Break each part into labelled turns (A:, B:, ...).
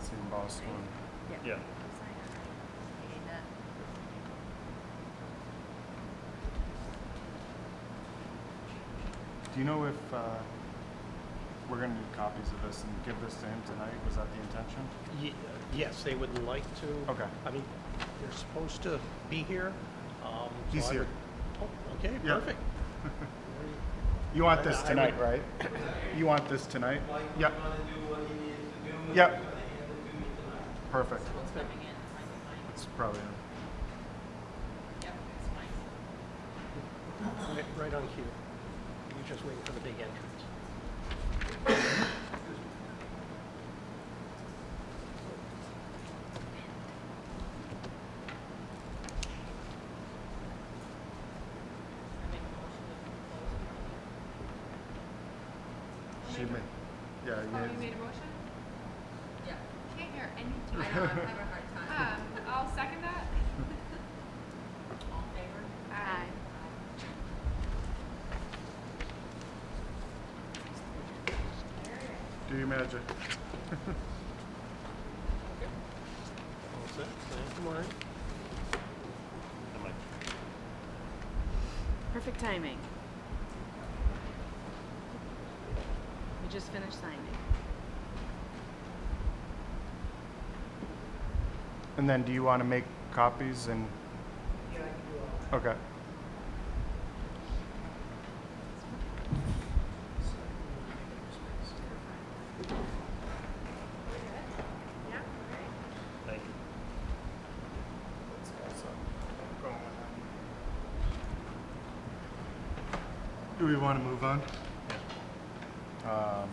A: It's in Boston.
B: Yeah.
C: You need that.
A: Do you know if, uh, we're gonna need copies of this and give this to him tonight? Was that the intention?
D: Ye- Yes, they would like to.
A: Okay.
D: I mean, they're supposed to be here. um, so
A: He's
D: I
A: here.
D: would- Oh, okay,
A: Yeah.
D: perfect.
A: You want this
D: I- I
A: tonight,
D: would-
A: right? You want this tonight?
E: Mike, you
A: Yep,
E: want to do what he needs to do? and
A: Yep.
E: he's gonna hand it to me tonight.
A: perfect.
C: What's coming in, it's fine, it's fine.
A: It's probably,
C: Yep, it's fine.
D: Right- Right on cue. You're just waiting for the big entrance.
C: I make a motion to close the public hearing.
A: she may, yeah,
F: Oh, you
A: yeah.
F: made a motion?
C: Yeah.
F: Can't hear anything.
C: I know, I'm having a hard time.
F: Um, I'll second that.
C: All in favor?
F: Aye.
A: do your magic.
D: All set? Thank you, Maureen.
B: Am I-
G: Perfect timing. We just finished signing.
A: And then do you wanna make copies and? Yeah, I can do all. Okay.
B: Thank you.
A: Do we want to move on? Um,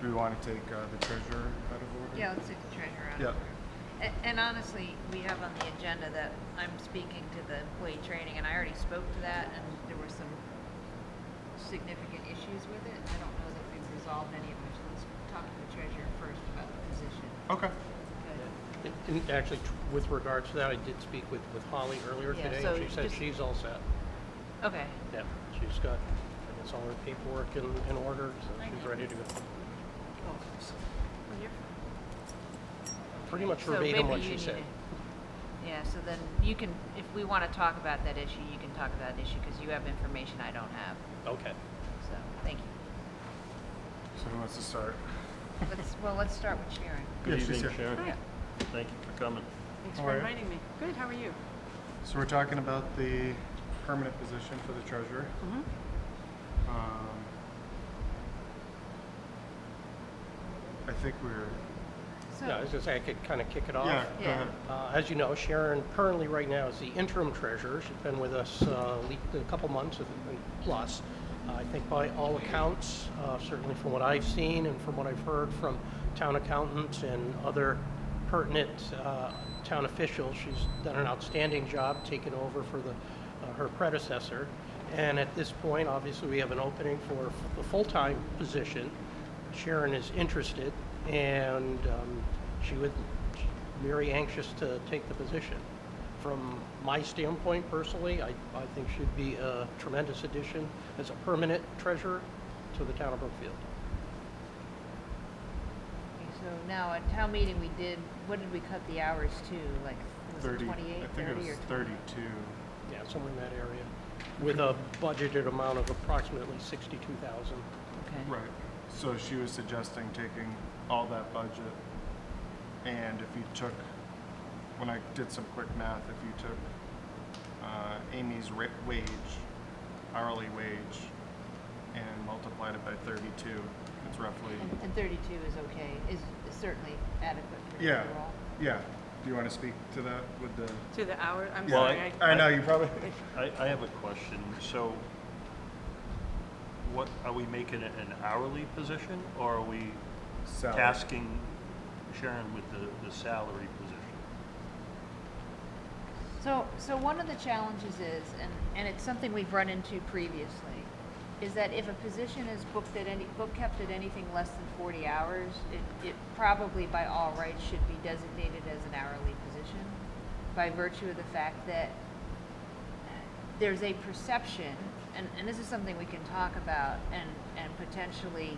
A: Do we want to take uh, the treasurer out of order?
C: Yeah, let's take the treasurer out.
A: Yeah.
C: A- And honestly, we have on the agenda that I'm speaking to the employee training, and I already spoke to that, and there were some significant issues with it. I don't know that we've resolved any of them, so let's talk to the treasurer first about the position.
A: Okay.
D: And- And actually, t- with regards to that, I did speak with, with Holly earlier
C: Yeah,
D: today,
C: so
D: and she said
C: just-
D: she's all set.
C: Okay.
D: Yeah, she's got, I guess, all her paperwork in, in order, so she's ready to go. Pretty much
C: Oh, So
D: verbatim
C: maybe
D: what
C: you
D: she
C: need
D: said.
C: to- Yeah, so then you can, if we want to talk about that issue, you can talk about that issue, because you have information I don't have,
D: Okay.
C: so, thank you.
A: So who wants to start?
C: Let's, well, let's start with Sharon.
A: Yeah,
B: Good
A: she's
B: evening,
A: here.
B: Sharon.
C: Yeah.
B: Thank you for coming.
G: Thanks
A: How
G: for
A: are you?
G: reminding me. Good, how are you?
A: So we're talking about the permanent position for the treasurer.
C: Mm-hmm.
G: Mhm.
A: Um, I think we're,
D: Yeah, I
C: Oh.
D: was gonna say, I could kind of kick it off.
A: yeah, go
C: Yeah.
A: ahead.
D: Uh, As you know, Sharon currently right now is the interim treasurer. She's been with us uh, le- a couple months and and plus. I think by all accounts, uh, certainly from what I've seen and from what I've heard from town accountants and other pertinent uh, town officials, she's done an outstanding job taking over for the, uh, her predecessor. And at this point, obviously, we have an opening for f- a full-time position. Sharon is interested, and um, she would very anxious to take the position. From my standpoint personally, I, I think she'd be a tremendous addition as a permanent treasurer to the town of Brookfield.
C: Okay, So now at town meeting, we did, what did we cut the hours to, like, was it
A: Thirty, I
C: twenty-eight,
A: think it
C: thirty,
A: was
C: or? tw-
A: thirty-two.
D: Yeah, somewhere in that area, with a budgeted amount of approximately sixty-two thousand.
C: Okay,
A: Right. So she was suggesting taking all that budget, and if you took, when I did some quick math, if you took uh, Amy's ra- wage, hourly wage, and multiplied it by 32, it's roughly.
C: and, and thirty-two is okay, is is certainly adequate for the
A: Yeah.
C: overall.
A: Yeah. Do you want to speak to that with the?
G: To the hour, I'm
B: Well,
G: sorry.
B: I-
G: I-
A: I, know you probably.
B: I, I have a question. So what, are we making it an hourly position or are we
A: Salary.
B: tasking Sharon with the, the salary position?
C: So, so one of the challenges is, and, and it's something we've run into previously, is that if a position is booked at any, book kept at anything less than forty hours, it, it probably by all rights should be designated as an hourly position by virtue of the fact that there's a perception, and, and this is something we can talk about and, and potentially